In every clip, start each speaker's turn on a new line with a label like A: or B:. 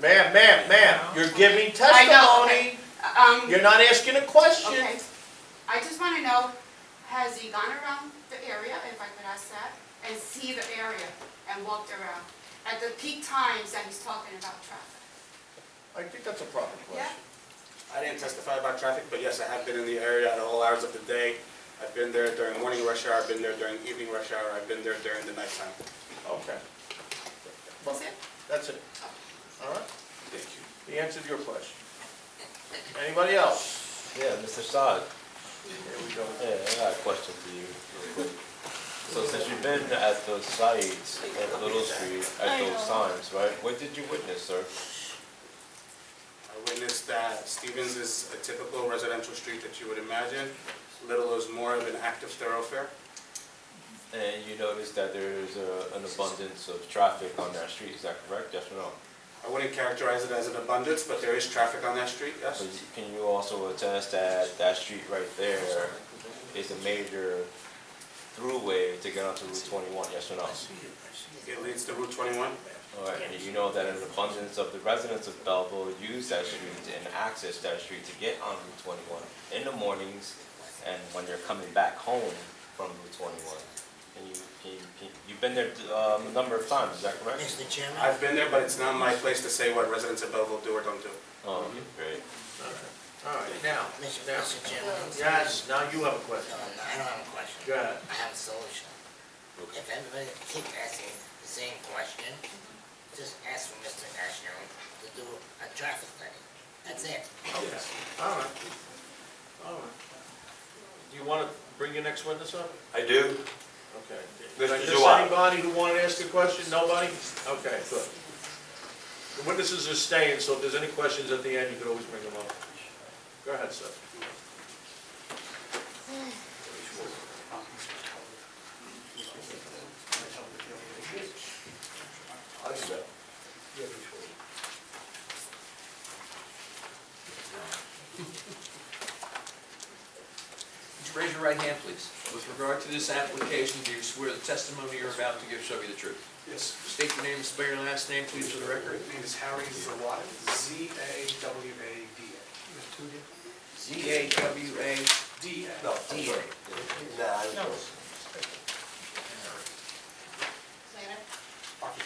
A: Ma'am, ma'am, ma'am, you're giving
B: I know,
A: testimony,
B: Um,
A: you're not asking a question.
B: okay, I just wanna know, has he gone around the area, if I could ask that, and see the area and walked around at the peak times that he's talking about traffic?
A: I think that's a proper question.
C: I didn't testify about traffic, but yes, I have been in the area at all hours of the day. I've been there during morning rush hour, I've been there during evening rush hour, I've been there during the nighttime.
A: Okay,
B: That's it?
A: that's it. All right,
C: Thank you.
A: he answered your question. Anybody else?
D: Yeah, Mr. Saad,
A: Here we go.
D: yeah, I got a question for you. real quick. So since you've been at those sites at Little Street at those times, right, what did you witness, sir?
C: I witnessed that Stevens is a typical residential street that you would imagine. Little is more of an active thoroughfare.
D: And you noticed that there is a- an abundance of traffic on that street, is that correct, yes or no?
C: I wouldn't characterize it as an abundance, but there is traffic on that street, yes.
D: But can you also attest that that street right there is a major throughway to get onto Route twenty-one, yes or no?
C: It leads to Route 21.
D: All right, and you know that an abundance of the residents of Belleville use that street and access that street to get on Route twenty-one in the mornings and when they're coming back home from Route twenty-one. And you, can, you- can, you've been there, um, a number of times, is that correct?
E: Mr. Chairman,
C: I've been there, but it's not my place to say what residents of Belleville do or don't do.
D: Oh, okay, great.
A: All right, now,
E: Mr.
A: now,
E: Mr. Chairman,
A: yes, now you have a question.
E: no, I don't have a
A: Go
E: question.
A: ahead.
E: I have a solution. If everybody keeps asking the same question, just ask for Mr. Ashner to do a traffic study. That's it.
A: Okay, Oh, all right, all right. Do you want to bring your next witness up?
F: I do.
A: Okay.
F: Mr.
A: Is there
F: Giuliani.
A: anybody who wanted to ask a question? Nobody? Okay, good. The witnesses are staying, so if there's any questions at the end, you could always bring them up. Go ahead, sir.
G: Would you Raise your right hand, please. With regard to this application, do you swear the testimony you're about to give shall be the truth?
C: Yes.
G: State your name, spell your last name, please, for the record.
C: name is Harry Zawada, Z-A-W-A-D-A.
G: Z-A-W-A.
C: D-A.
F: No.
G: D-A.
F: Nah, I-
B: Later.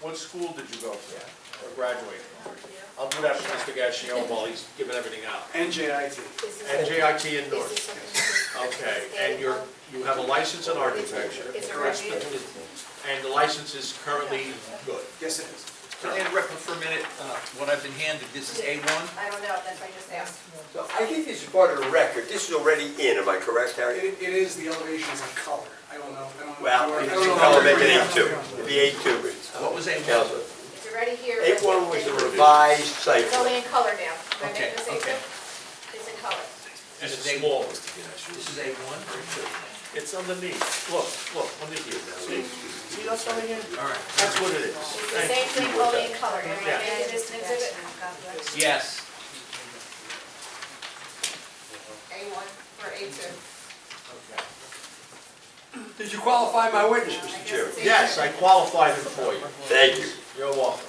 A: What school did you go to or graduate from? I'll do that for Mr. Gassion while he's giving everything out.
C: NJIT.
H: Is this
A: And
H: a-
A: JIT indoor.
H: is this a-
A: Okay, and you're, you have a license in architecture,
H: Is there a review?
A: and the license is currently good.
C: Yes, it is.
G: Can I interrupt for a minute? Uh, What I've been handed, this is A1.
H: I don't know, that's why I just asked.
F: So I think this is part of the record. This is already in, am I correct, Harry?
I: It, it is the elevations of color. I don't know. I don't know.
F: Well,
I: I
F: it's
I: don't know.
F: elevated eight two. It'd be eight two, but,
G: What was A1?
F: Counselor.
H: It's already here.
F: Eight one was the revised site
H: It's
F: plan.
H: only in color now. Am I
G: Okay,
H: making the same
G: okay.
H: thing? It's in color.
A: And
G: This
A: it's
G: is A1.
A: small.
G: This is A1.
A: It's underneath. Look, look, underneath. See, see that's something in?
G: All right.
A: That's what it is.
H: It's the
A: Thank
H: same
A: you.
H: thing, only in color. Am
A: Yeah.
H: I making this an exhibit?
G: Yes.
B: A one or A two?
F: Did you qualify my witness, Mr. Chairman?
A: Yes, I qualified him for you.
F: Thank you.
A: You're welcome.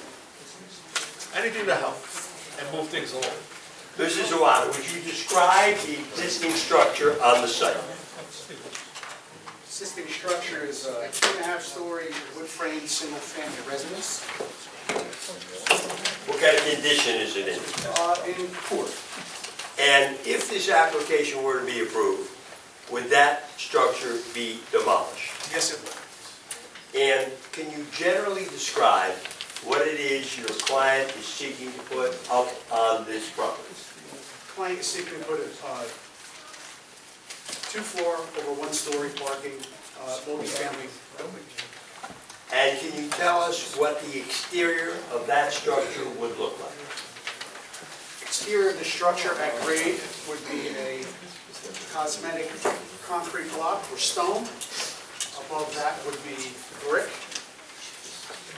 A: Anything to help and move things along.
F: Mrs. Zawada, would you describe the existing structure on the site?
I: Existing structure is a two and a half story wood frame, single family residence,
F: What kind of condition is it in?
I: uh, in poor.
F: And if this application were to be approved, would that structure be demolished?
I: Yes, it would.
F: And can you generally describe what it is your client is seeking to put up on this property?
I: Client is seeking to put a, uh, two floor over one story parking, uh, multi-family building.
F: And can you tell us what the exterior of that structure would look like?
I: Exterior of the structure at grade would be a cosmetic concrete block or stone. Above that would be brick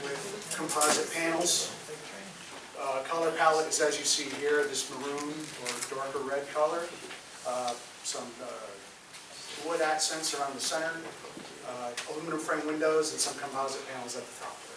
I: with composite panels. Uh, Color palette is as you see here, this maroon or darker red color. Uh, Some uh, wood accents around the center, uh, aluminum frame windows, and some composite panels at the top.